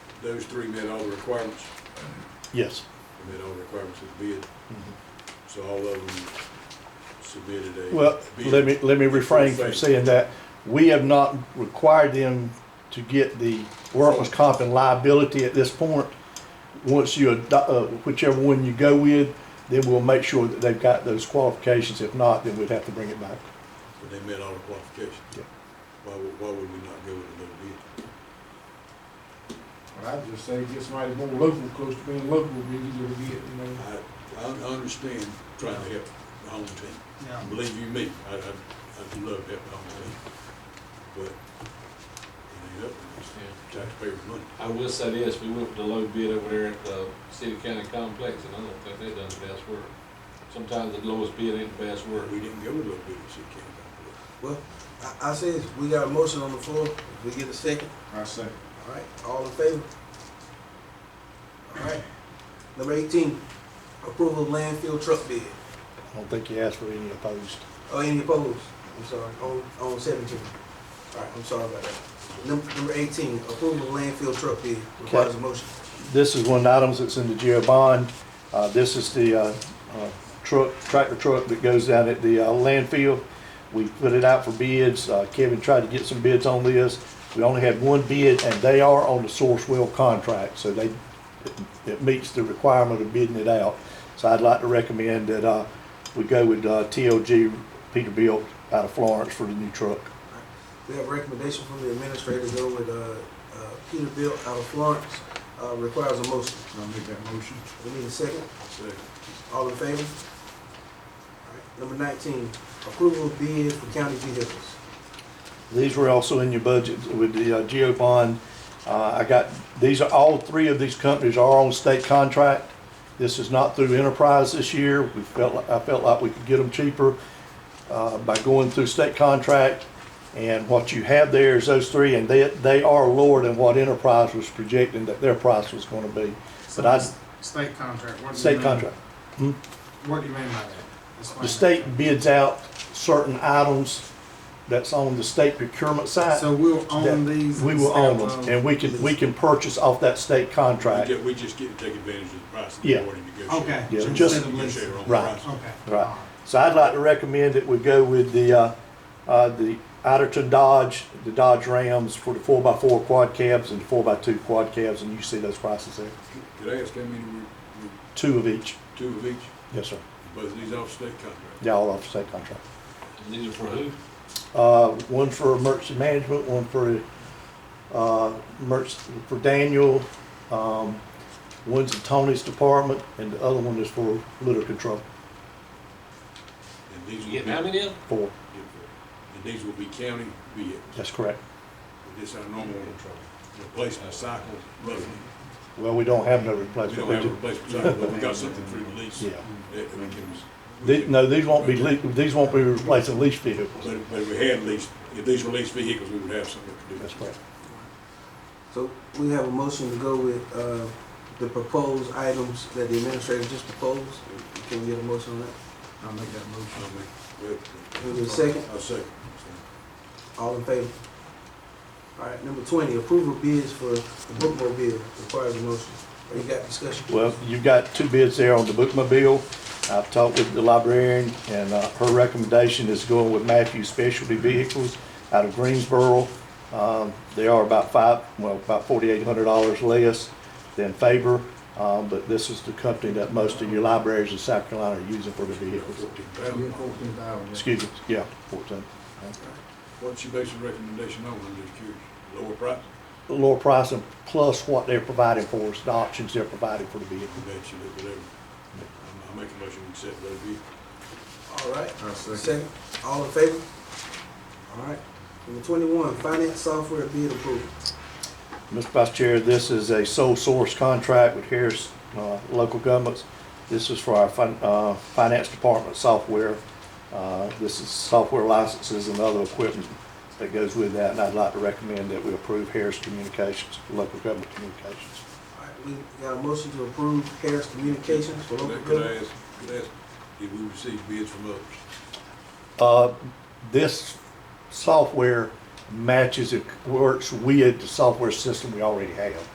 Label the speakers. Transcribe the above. Speaker 1: those three met all the requirements,
Speaker 2: Yes.
Speaker 1: They met all the requirements of the bid, so all of them submitted a.
Speaker 2: Well,
Speaker 1: bid.
Speaker 2: let me, let me refrain
Speaker 1: Full
Speaker 2: from
Speaker 1: faith.
Speaker 2: saying that. We have not required them to get the workers' comp and liability at this point. Once you adopt, uh, whichever one you go with, then we'll make sure that they've got those qualifications. If not, then we'd have to bring it back.
Speaker 1: So they met all the qualifications.
Speaker 2: Yeah.
Speaker 1: Why would, why would we not go with another bid?
Speaker 3: Well, I just say get somebody more local, close to being local, we easier to get, you know.
Speaker 1: I, I understand trying to help my home team.
Speaker 3: Yeah.
Speaker 1: Believe you me, I, I, I'd love to help my home team, but it ain't up to us.
Speaker 4: Yeah.
Speaker 1: Taxpayers' money.
Speaker 4: I will say this, we went with the low bid over there at the city county complex, and I don't think they done the best work. Sometimes the lowest bid ain't the best work.
Speaker 1: We didn't go with low bid, she can't.
Speaker 5: Well, I, I said, we got a motion on the floor, If we get a second,
Speaker 3: I say.
Speaker 5: all right, all in favor? All right, number eighteen, approval of landfill truck bid,
Speaker 2: I don't think you asked for any opposed.
Speaker 5: or any opposed, I'm sorry, on, on seventeen. All right, I'm sorry about that. Number, number eighteen, approval of landfill truck bid, requires a motion.
Speaker 2: This is one of the items that's in the GO bond. Uh, This is the uh, uh, truck, tractor truck that goes down at the uh, landfill. We put it out for bids. Uh, Kevin tried to get some bids on this. We only had one bid, and they are on the source well contract, so they, it meets the requirement of bidding it out. So I'd like to recommend that uh, we go with uh, TLG Peterbilt out of Florence for the new truck.
Speaker 5: We have a recommendation from the administrator to go with, uh, uh, Peterbilt out of Florence, uh, requires a motion.
Speaker 3: I'll make that motion.
Speaker 5: We need a second.
Speaker 1: Second.
Speaker 5: All in favor? Alright, Number nineteen, approval of bid for county vehicles.
Speaker 2: These were also in your budget with the uh, geo bond. Uh, I got, these are, all three of these companies are on state contract. This is not through enterprise this year. We felt, li- I felt like we could get them cheaper uh, by going through state contract. And what you have there is those three, and they, they are lower than what enterprise was projecting that their price was gonna be. But I,
Speaker 6: State contract, what do you mean?
Speaker 2: state contract.
Speaker 6: What do you mean by that? Explain
Speaker 2: The
Speaker 6: that.
Speaker 2: state bids out certain items that's on the state procurement side.
Speaker 6: So we'll own these?
Speaker 2: We will
Speaker 6: instead
Speaker 2: own
Speaker 6: of-
Speaker 2: them, and we can, we can purchase off that state
Speaker 1: We
Speaker 2: contract.
Speaker 1: ju- we just get to take advantage of the price and
Speaker 2: Yeah.
Speaker 1: the awarding negotiation.
Speaker 6: Okay.
Speaker 2: Yeah,
Speaker 6: instead
Speaker 2: just-
Speaker 6: of
Speaker 1: Negotiate
Speaker 6: leasing.
Speaker 1: our own
Speaker 2: Right.
Speaker 1: price.
Speaker 6: Okay.
Speaker 2: Right. So I'd like to recommend that we go with the, uh, uh, the Atherton Dodge, the Dodge Rams for the four x four quad cabs and the four x two quad cabs, and you see those prices there,
Speaker 1: Could I ask how many were, were
Speaker 2: two of each.
Speaker 1: two of each,
Speaker 2: Yes, sir.
Speaker 1: both of these off state contracts?
Speaker 2: Yeah, all off state contract.
Speaker 4: And These are for who?
Speaker 2: Uh, one for emergency management, one for, uh, emergency, for Daniel, um, one's in Tony's department, and the other one is for litter control,
Speaker 1: And these
Speaker 4: You
Speaker 1: will
Speaker 4: getting
Speaker 1: be-
Speaker 4: how many of them?
Speaker 2: four.
Speaker 1: And these will be county vehicles.
Speaker 2: That's correct.
Speaker 1: This is our normal replacement cycle, roughly.
Speaker 2: Well, we don't have no
Speaker 1: We
Speaker 2: replacement.
Speaker 1: don't
Speaker 2: We
Speaker 1: have a
Speaker 2: do-
Speaker 1: replacement cycle, but we got something through the lease.
Speaker 2: Yeah.
Speaker 1: That we can. we
Speaker 2: The-
Speaker 1: can-
Speaker 2: No, these won't be, lea- these won't be replacing lease
Speaker 1: But
Speaker 2: vehicles.
Speaker 1: if, but if we had leased, if these were leased vehicles, we would have something to do.
Speaker 2: That's correct.
Speaker 5: So we have a motion to go with, uh, the proposed items that the administrator just proposed. Can we get a motion on that?
Speaker 3: I'll make that
Speaker 1: I
Speaker 3: motion.
Speaker 1: mean,
Speaker 5: Can we get a second?
Speaker 1: I'll second.
Speaker 5: All in favor? Alright, number twenty, approval of bids for the bookmobile, requires a motion. Or you got discussion?
Speaker 2: Well, you've got two bids there on the bookmobile. I've talked with the librarian, and uh, her recommendation is going with Matthew Specialty Vehicles out of Greensboro. Um, They are about five, well, about forty-eight hundred dollars less than Faber, um, but this is the company that most of your libraries in South Carolina are using for the vehicles.
Speaker 1: Fourteen
Speaker 3: Be
Speaker 1: thousand.
Speaker 3: fourteen thousand.
Speaker 2: Excuse me, yeah, fourteen.
Speaker 1: What's your basic recommendation on, I'm just curious, lower price?
Speaker 2: lower pricing plus what they're providing for us, the options they're providing for the vehicle.
Speaker 1: I bet you that whatever. I make a motion to accept those vehicles.
Speaker 5: Alright,
Speaker 3: I second.
Speaker 5: second, all in favor? Alright, number twenty-one, finance software bid approval.
Speaker 2: Mr. Vice Chair, this is a sole source contract with Harris uh, Local Governments. This is for our fin- uh, Finance Department software. Uh, This is software licenses and other equipment that goes with that, and I'd like to recommend that we approve Harris Communications, Local Government Communications.
Speaker 5: Alright, we got a motion to approve Harris Communications for local
Speaker 1: Could I
Speaker 5: government.
Speaker 1: ask, could I ask, did we receive bids from others?
Speaker 2: Uh, This software matches, it works with the software system we already have.